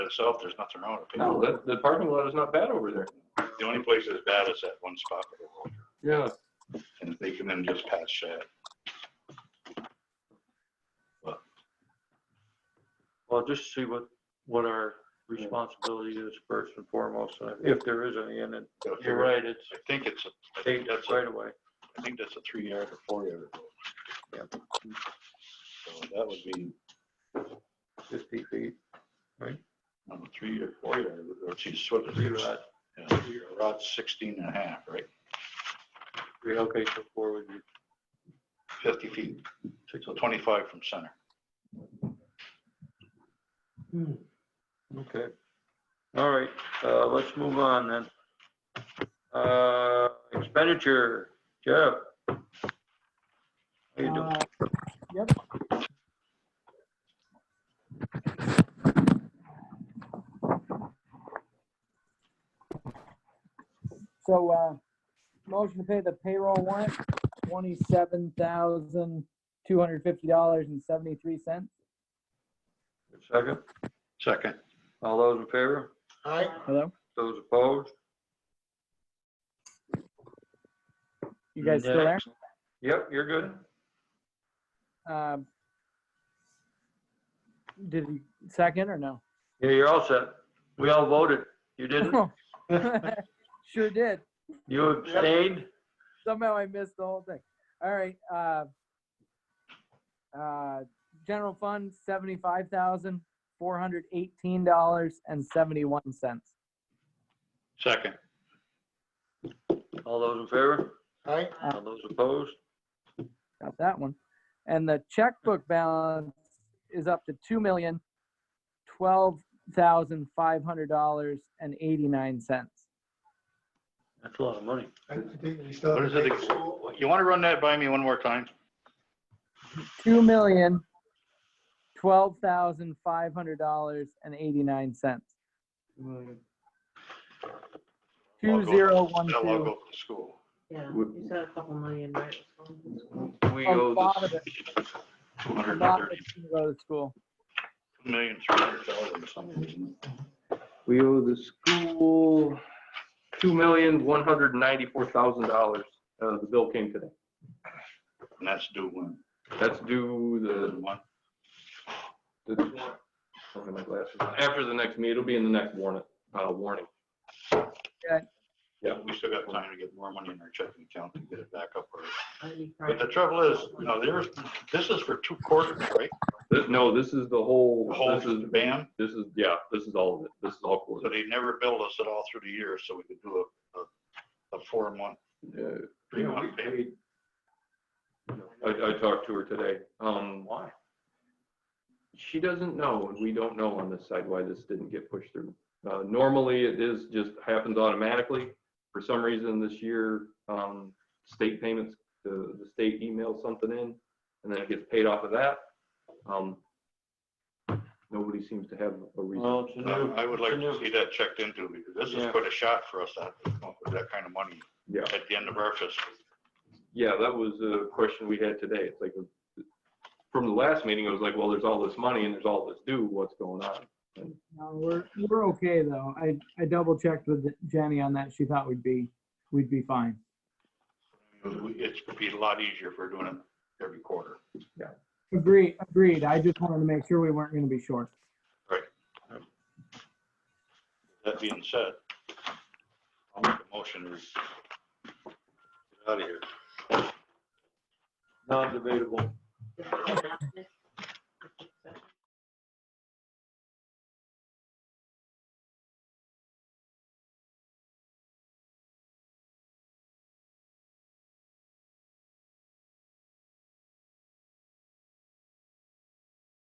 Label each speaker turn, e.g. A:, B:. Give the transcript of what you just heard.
A: itself, there's nothing wrong with
B: No,
A: people.
B: the, the parking lot is not bad over there.
A: The only place that's bad is that one spot where they're older,
B: Yeah,
A: and they can then just patch that.
C: Well, just see what, what our responsibility is first and foremost, and if there is any, and it- you're right, it's
A: I think it's, a. I
C: state
A: think that's, a-
C: right away.
A: I think that's a three yard or four yard.
C: Yeah.
A: So that would be,
C: fifty feet.
A: um, three or four yard, or she's what is
C: Three
A: it?
C: rod,
A: Yeah, About sixteen and a half, right?
C: three, okay, so four would be
A: Fifty feet,
C: six.
A: so twenty-five from center.
C: Okay. All right, uh, let's move on then. Uh, expenditure, Jeff. How you doing?
D: Uh, So, uh, motion to pay the payroll warrant, twenty-seven thousand, two hundred fifty dollars and seventy-three cents.
C: Second,
A: Second,
C: all those in favor,
E: Aye.
D: Hello?
C: those opposed?
D: You guys still there?
C: Next. Yep, you're good.
D: Um, Did you second or no?
C: Yeah, you're all set. We all voted. You didn't?
D: Sure did.
C: You abstained?
D: Somehow I missed the whole thing. All right, uh, uh, general fund, seventy-five thousand, four hundred eighteen dollars and seventy-one cents.
A: second,
C: All those in favor?
E: Aye.
C: All those opposed?
D: Got that one. And the checkbook balance is up to two million, twelve thousand, five hundred dollars and eighty-nine cents.
C: That's a lot of money.
E: I think we still.
A: What is it? you want to run that by me one more time?
D: Two million, twelve thousand, five hundred dollars and eighty-nine cents. Two
A: Local.
D: zero one
A: That'll all
D: two.
A: go to school.
F: Yeah,
B: Would-
F: you said a couple million, right?
C: We
D: A
C: owe
D: lot of
C: the
D: it,
A: Two
D: a
A: hundred and
D: lot of
A: thirty,
D: it's gonna go to school.
A: two million, three hundred thousand or something. isn't it?
B: we owe the school two million, one hundred and ninety-four thousand dollars. Uh, the bill came today.
A: And that's due when?
B: That's due
A: One.
B: the, the, I'll get my glasses on. after the next meet, it'll be in the next warrant, uh, warning. Yeah.
A: We still got time to get more money in our checking account to get it back up. early. But the trouble is, you know, there's, this is for two quarters, right?
B: Th- No, this is the whole,
A: The whole
B: this is,
A: band,
B: this is, yeah, this is all of it. This is all
A: so
B: quarter.
A: they never billed us at all through the year, so we could do a, a, a four month,
B: Uh,
A: three month payment.
B: I, I talked to her today. Um, why? She doesn't know, and we don't know on this side why this didn't get pushed through. Uh, normally it is just happens automatically. For some reason this year, um, state payments, the, the state emails something in and then it gets paid off of that. Um, nobody seems to have a reason.
C: Well, it's a
A: Uh,
C: new-
A: I would like
C: it's a
A: to
C: new-
A: see that checked into, because this is
C: Yeah.
A: quite a shot for us, that, with that kind of money
B: Yeah.
A: at the end of our fiscal.
B: Yeah, that was a question we had today. It's like, from the last meeting, it was like, well, there's all this money and there's all this due, what's going on?
D: No, we're, we're okay though. I, I double checked with Jenny on that. She thought we'd be, we'd be fine.
A: It's gonna be a lot easier if we're doing it every quarter.
D: Agreed, agreed. I just wanted to make sure we weren't gonna be short.
A: That being said, I'll make a motion to get out of here.
C: Non-debatable.
F: Right.